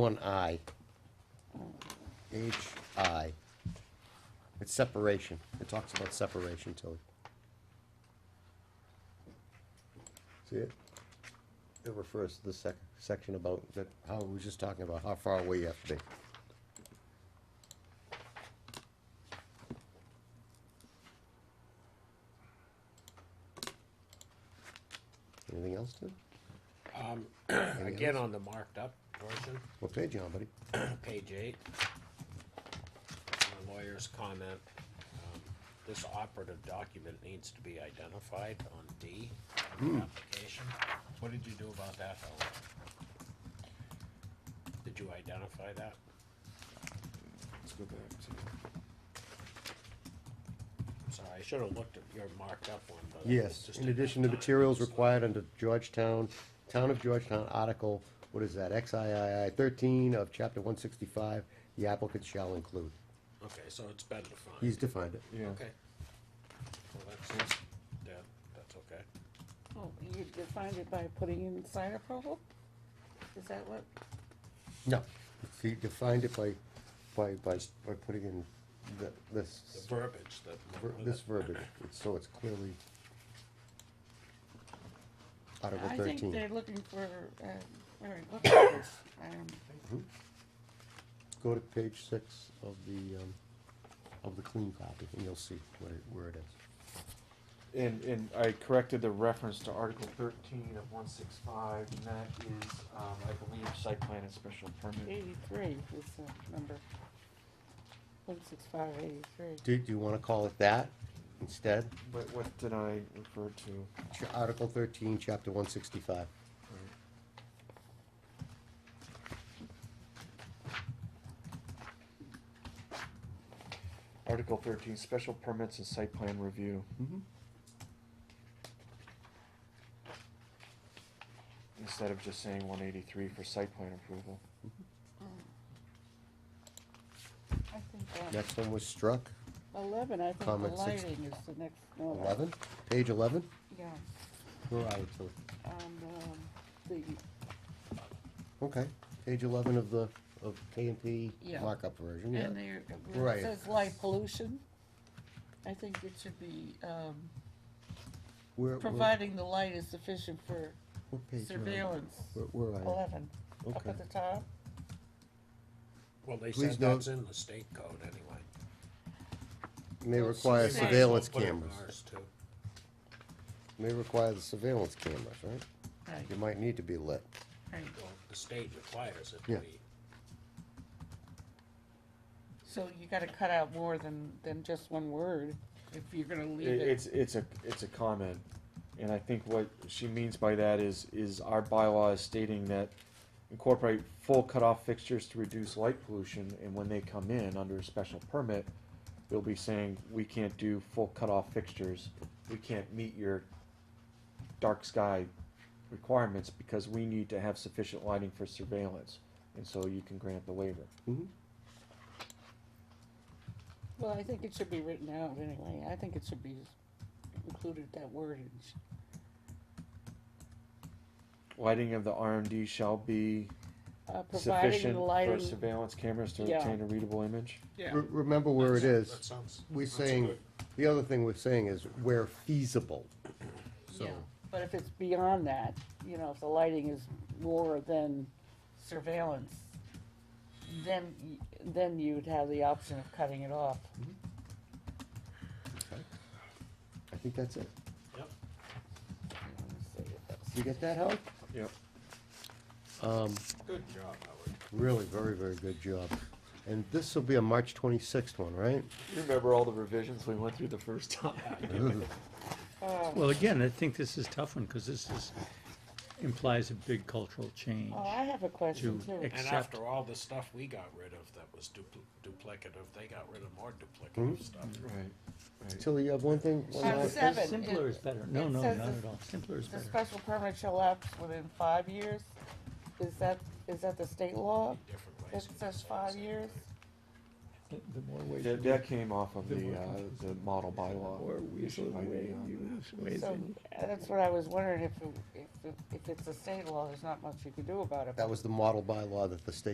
One I. H I. It's separation. It talks about separation, Tilly. See it? It refers to the sec, section about that, how, we were just talking about how far away you have to be. Anything else, Tim? Again, on the marked up portion, What page you on, buddy? page eight. My lawyer's comment, um, this operative document needs to be identified on D of Hmm. the application. What did you do about that, Helen? Did you identify that? Let's go back to, I'm Sorry, I should have looked at your marked up one, but. I Yes, just in didn't have addition to time. materials required under Georgetown, Town of Georgetown Article, what is that, XIII thirteen of chapter one sixty-five, the applicant shall include. Okay, so it's been defined. He's defined it. yeah. Okay. Well, that's, yeah, that's okay. Oh, you defined it by putting in sign approval? Is that what? No, he defined it by, by, by, by putting in the, The this, verbiage that. ver- this verbiage, It's- so it's clearly Article I think they're thirteen. looking for, uh, Mary, look at this. Um, Go to page six of the, um, of the clean copy, and you'll see what it, where it is. And, and I corrected the reference to Article thirteen of one six five, and that is, um, I believe, site plan and special permit. Eighty-three is the number. One six five eighty-three. Do, do you wanna call it that instead? What, what did I refer to? Ch- Article thirteen, chapter one sixty-five. Article thirteen, special permits and site plan review. Mm-hmm. Instead of just saying one eighty-three for site plan approval. I think, uh, Next one was struck, eleven, I think the Comment six- lighting is the next one. eleven, page eleven. Yeah, Where are we, Tilly? um, um, the, Okay, page eleven of the, of K and P Yeah. markup version, yeah. and there, where Right. it says light pollution. I think it should be, um, Where- where- providing the light is sufficient for what page am I on? surveillance. Where, where are you? Eleven, up Okay. at the top. Well, they Please said note- that's in the state code anyway. May Well, require it's the same. surveillance Put it in cameras, ours, too. may require the surveillance cameras, right? Right, You might need to be lit. right. Well, the state requires it Yeah. to be. So you gotta cut out more than, than just one word if you're gonna I- leave it. It's, it's a, it's a comment, and I think what she means by that is, is our bylaw is stating that incorporate full cutoff fixtures to reduce light pollution, and when they come in under a special permit, they'll be saying, we can't do full cutoff fixtures, we can't meet your dark sky requirements, because we need to have sufficient lighting for surveillance, and so you can grant the waiver. Mhm. Well, I think it should be written out anyway. I think it should be included that wordage. Lighting of the RMD shall be Uh, providing sufficient the for lighting. surveillance cameras to Yeah. obtain a readable image? Re- Remember where it That's- is. That sounds. We're that's saying, good. the other thing we're saying is where feasible. So, Yeah, But if it's beyond that, you know, if the lighting is more than surveillance, then, y- then you'd have the option of cutting it off. I think that's it. Yep, Let me see if that's- You get that, Howard? Yep. Um, good job, Howard. Really, very, very good job. And this will be a March 26th one, right? You remember all the revisions we went through the first time? Oh, Well, again, I think this is a tough one, because this is, implies a big cultural change. oh, I have a question To too. ex- And Except- after all the stuff we got rid of that was dupl- duplicative, they got rid of more Hmm? duplicative stuff. Right, right. Tilly, you have one thing? one Um, line? so- Seven, Simpler it- is better. No, it no, says not the- at all. Simpler is The better. special permit shall lapse within five years? Is that, is that the state law? Different It ways. to says say the five same years? The the more ways, That, you- that came off of the, uh, the model or bylaw. ways, issue by the, way, um, you lose ways. So, in- uh, that's what I was wondering, if, it- if, it- if it's a state law, there's not much you can do about it. That was the model bylaw that the state